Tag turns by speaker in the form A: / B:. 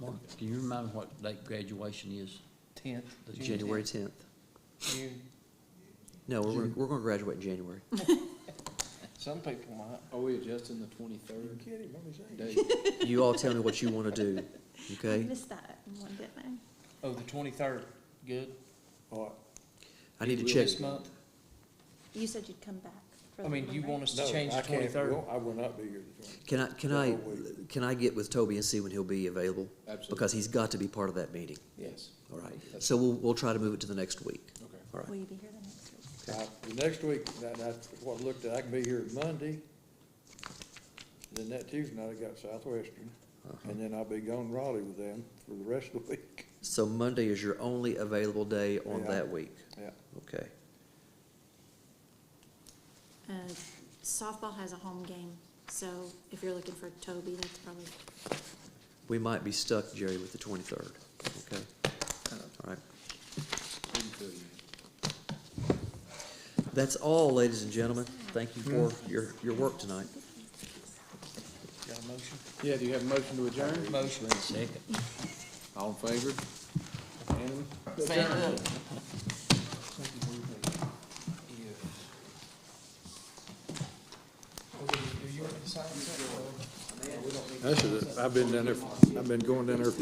A: Mark, can you remind me what date graduation is?
B: Tenth.
A: The
B: June
C: January
B: 10th.
C: tenth.
B: June.
C: No, we're, we're gonna graduate in January.
B: Some people might.
D: Are we adjusting the twenty-third date?
C: You all tell me what you wanna do,
E: I
C: okay?
E: missed that one, didn't I?
B: Oh, the twenty-third, good.
C: I need to check.
B: This month,
E: You said you'd come back. for
B: I
E: the
B: mean,
E: one,
B: you
E: right?
B: want us
F: No,
B: to change
F: I
B: the
F: can't.
B: twenty-third?
F: Well, I will not be here the
C: Can I, can I, can I get with Toby and see when he'll be available?
D: Absolutely.
C: Because he's got to be part of that meeting,
D: Yes,
C: all right?
D: That's-
C: So we'll, we'll try to move it to the next week,
D: okay.
C: all right?
E: Will you be here the next
F: 20th.
E: week?
F: I- The next week, that, that's what I looked at, I can be here Monday. Then that Tuesday night, I got Southwestern,
C: Uh-huh.
F: and then I'll be gone Raleigh with them for the rest of the week.
C: So Monday is your only available day on
F: Yeah.
C: that week,
F: Yeah,
C: okay?
E: Uh, Softball has a home game, so if you're looking for Toby, that's probably,
C: We might be stuck, Jerry, with the twenty-third, okay?
D: Uh-huh.
C: All right. That's all, ladies and gentlemen. Thank you for your, your work tonight.
B: Got a motion?
D: Yeah, do you have a motion to adjourn?
B: Motion.
A: Second.
D: All in favor? And
B: Fan up. Oh,
F: that's it, I've been down there, I've been going down there for